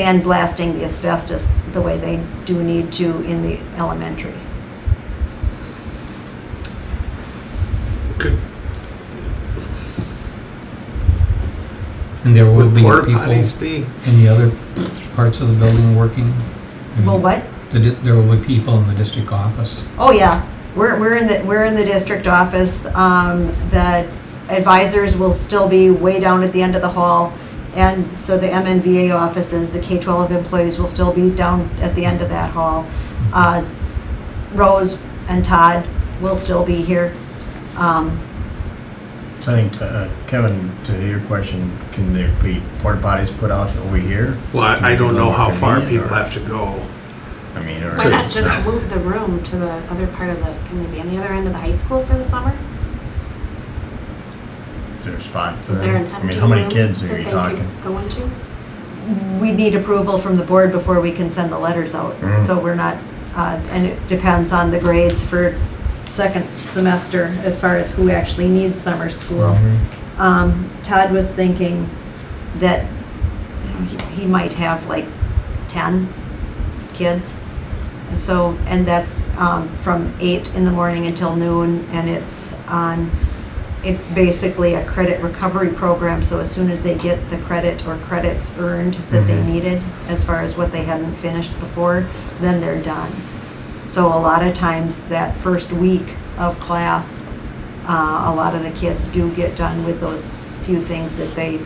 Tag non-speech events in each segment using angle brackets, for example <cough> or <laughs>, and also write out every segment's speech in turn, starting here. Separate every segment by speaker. Speaker 1: sandblasting the asbestos the way they do need to in the elementary.
Speaker 2: Could
Speaker 3: And there will
Speaker 2: would
Speaker 3: be
Speaker 2: porta
Speaker 3: people
Speaker 2: potties be?
Speaker 3: in the other parts of the building working? I mean,
Speaker 1: Well, what?
Speaker 3: the di- There will be people in the district office.
Speaker 1: Oh, yeah. We're, we're in the, we're in the district office. Um, the advisors will still be way down at the end of the hall. And so the MNVA offices, the K-12 employees will still be down at the end of that hall. Uh, Rose and Todd will still be here. Um,
Speaker 4: I think, uh, Kevin, to your question, can there be porta potties put out over here?
Speaker 2: Well, I I don't know how far people have to go.
Speaker 4: I mean, or.
Speaker 5: Why not just move the room to the other part of the, can they be on the other end of the high school for the summer?
Speaker 4: Is there a spot for
Speaker 5: Is there
Speaker 4: them? Uh,
Speaker 5: an
Speaker 4: I
Speaker 5: empty
Speaker 4: mean, how many
Speaker 5: room
Speaker 4: kids
Speaker 5: that
Speaker 4: are
Speaker 5: they
Speaker 4: you talking?
Speaker 5: could go into?
Speaker 1: we need approval from the board before we can send the letters out.
Speaker 4: Mm.
Speaker 1: So we're not, uh, and it depends on the grades for second semester as far as who actually needs summer school.
Speaker 4: Mhm.
Speaker 1: Um, Todd was thinking that you know, he- he might have like 10 kids. And so, and that's um, from 8 in the morning until noon, and it's on, it's basically a credit recovery program, so as soon as they get the credit or credits earned that they
Speaker 4: Mhm.
Speaker 1: needed, as far as what they hadn't finished before, then they're done. So a lot of times, that first week of class, uh, a lot of the kids do get done with those few things that they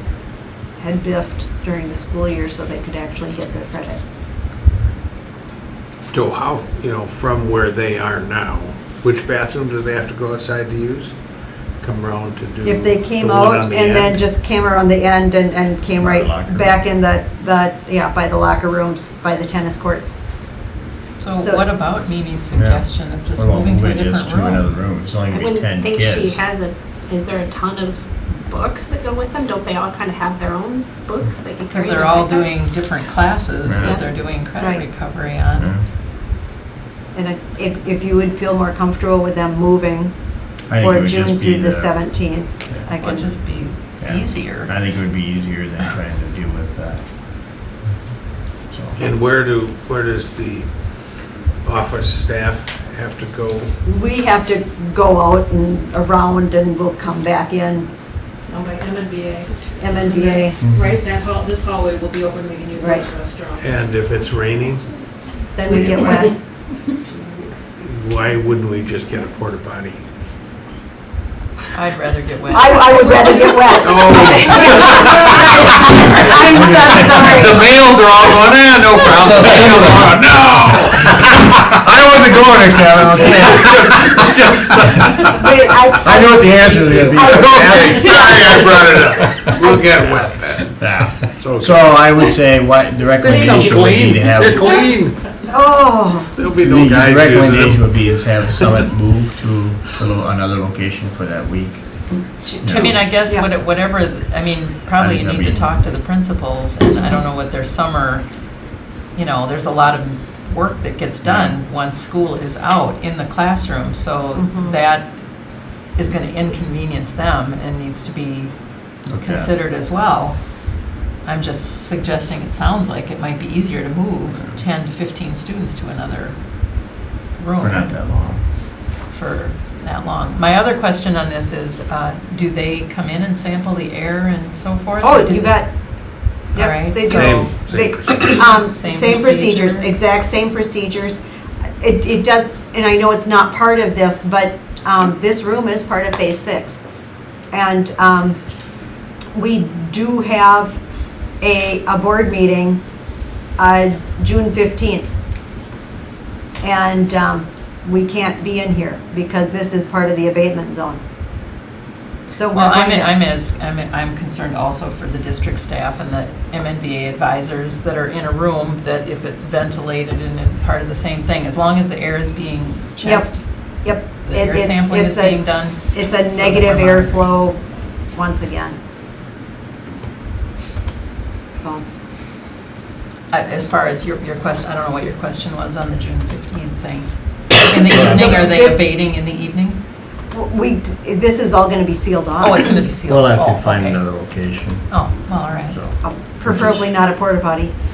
Speaker 1: had biffed during the school year so they could actually get their credit.
Speaker 2: To how, you know, from where they are now, which bathroom do they have to go outside to use? Come around to do.
Speaker 1: If they came
Speaker 2: the one
Speaker 1: out
Speaker 2: on the
Speaker 1: and then
Speaker 2: end?
Speaker 1: just came around the end and, and came
Speaker 4: By
Speaker 1: right
Speaker 4: the locker
Speaker 1: back
Speaker 4: room.
Speaker 1: in the, the, yeah, by the locker rooms, by the tennis courts.
Speaker 6: So
Speaker 1: So-
Speaker 6: what about Mimi's suggestion of just
Speaker 4: What about
Speaker 6: moving to a
Speaker 4: moving it just
Speaker 6: different
Speaker 4: To another
Speaker 6: room?
Speaker 4: room, it's only
Speaker 5: I
Speaker 4: gonna be ten
Speaker 5: wouldn't think
Speaker 4: kids.
Speaker 5: she has a, is there a ton of books that go with them? Don't they all kind of have their own books they can carry?
Speaker 6: Because they're
Speaker 5: them
Speaker 6: all
Speaker 5: back up?
Speaker 6: doing different classes
Speaker 4: Yeah.
Speaker 6: that they're doing
Speaker 1: Right.
Speaker 6: credit recovery
Speaker 4: Yeah.
Speaker 6: on.
Speaker 1: And I- if, if you would feel more comfortable with them moving
Speaker 4: I think it
Speaker 1: for
Speaker 4: would
Speaker 1: June
Speaker 4: just be
Speaker 1: through the 17th, I
Speaker 6: It would
Speaker 1: can,
Speaker 6: just be
Speaker 4: Yeah. I
Speaker 6: easier.
Speaker 4: think it would be easier than trying to deal with that. So.
Speaker 2: And where do, where does the office staff have to go?
Speaker 1: we have to go out and around and we'll come back in.
Speaker 7: owned by MNBA.
Speaker 1: MNBA,
Speaker 4: Mm-hmm.
Speaker 5: <laughs>
Speaker 7: Right, that hall, this hallway will be open, we can use it as
Speaker 1: Right.
Speaker 7: a restaurant.
Speaker 2: And if it's raining,
Speaker 1: then we get wet.
Speaker 2: why wouldn't we just get a porta potty?
Speaker 6: I'd rather
Speaker 1: <laughs>
Speaker 6: get wet.
Speaker 1: I, I would rather get
Speaker 4: <laughs>
Speaker 1: wet.
Speaker 4: Oh.
Speaker 1: <laughs> I'm so sorry.
Speaker 4: <laughs>
Speaker 8: The males are all going, eh, no problem.
Speaker 4: I wasn't going there, Kevin,
Speaker 8: <laughs>
Speaker 4: I was
Speaker 1: Wait, I,
Speaker 4: know what the answer is gonna be.
Speaker 8: Okay, sorry I brought it up. We'll get wet then.
Speaker 4: Yeah.
Speaker 2: It's okay.
Speaker 4: So I would say what, the
Speaker 8: They ain't
Speaker 4: recommendation would be
Speaker 8: clean.
Speaker 4: to have.
Speaker 8: They're clean.
Speaker 1: oh,
Speaker 2: There'll be
Speaker 4: The
Speaker 2: no guys
Speaker 4: the recommendation
Speaker 2: using them.
Speaker 4: would be is have Summit move to, to lo- another location for that week.
Speaker 6: I mean, I guess
Speaker 1: Yeah.
Speaker 6: what it- whatever is, I mean,
Speaker 4: I
Speaker 6: probably you
Speaker 4: think
Speaker 6: need to
Speaker 4: that'd be-
Speaker 6: talk to the principals, and I don't know what their summer, you know, there's a lot of work that gets done once school is out in the classroom, so that is gonna inconvenience them and needs to be
Speaker 4: Okay.
Speaker 6: considered as well. I'm just suggesting, it sounds like it might be easier to move ten to fifteen students to another room
Speaker 4: For not that long.
Speaker 6: for that long. My other question on this is, uh, do they come in and sample the air and so forth?
Speaker 1: oh,
Speaker 6: Or do-
Speaker 1: you got,
Speaker 6: All
Speaker 1: yep,
Speaker 6: right,
Speaker 1: they do.
Speaker 2: Same,
Speaker 1: They-
Speaker 2: same
Speaker 1: <coughs>
Speaker 2: procedure.
Speaker 1: Um,
Speaker 6: Same
Speaker 1: same procedures,
Speaker 6: procedure.
Speaker 1: exact same procedures. It, it does, and I know it's not part of this, but, um, this room is part of phase six. And, um, we do have a, a board meeting, uh, June fifteenth. And, um, we can't be in here because this is part of the abatement zone. So we're
Speaker 6: Well, I'm,
Speaker 1: going to-
Speaker 6: I'm as, I'm, I'm concerned also for the district staff and the MNVA advisors that are in a room, that if it's ventilated and it's part of the same thing, as long as the air is being checked,
Speaker 1: Yep.
Speaker 6: the
Speaker 1: it-
Speaker 6: air
Speaker 1: it's-
Speaker 6: sampling
Speaker 1: it's
Speaker 6: is
Speaker 1: a-
Speaker 6: being done.
Speaker 1: It's
Speaker 6: so
Speaker 1: a
Speaker 6: that
Speaker 1: negative
Speaker 6: we're monitoring.
Speaker 1: airflow once again. So,
Speaker 6: I- Uh, As far as your, your question, I don't know what your question was on the June 15th
Speaker 4: <coughs>
Speaker 6: thing. In the evening, are they
Speaker 1: If-
Speaker 6: abating in the evening?
Speaker 1: w- we, d- this is all gonna be sealed off.
Speaker 6: Oh, it's going to be sealed.
Speaker 4: We'll have
Speaker 6: Oh,
Speaker 4: to find
Speaker 6: okay.
Speaker 4: another location,
Speaker 6: Oh, well, all right.
Speaker 4: so.
Speaker 1: Uh, Um, Preferably not a porta potty.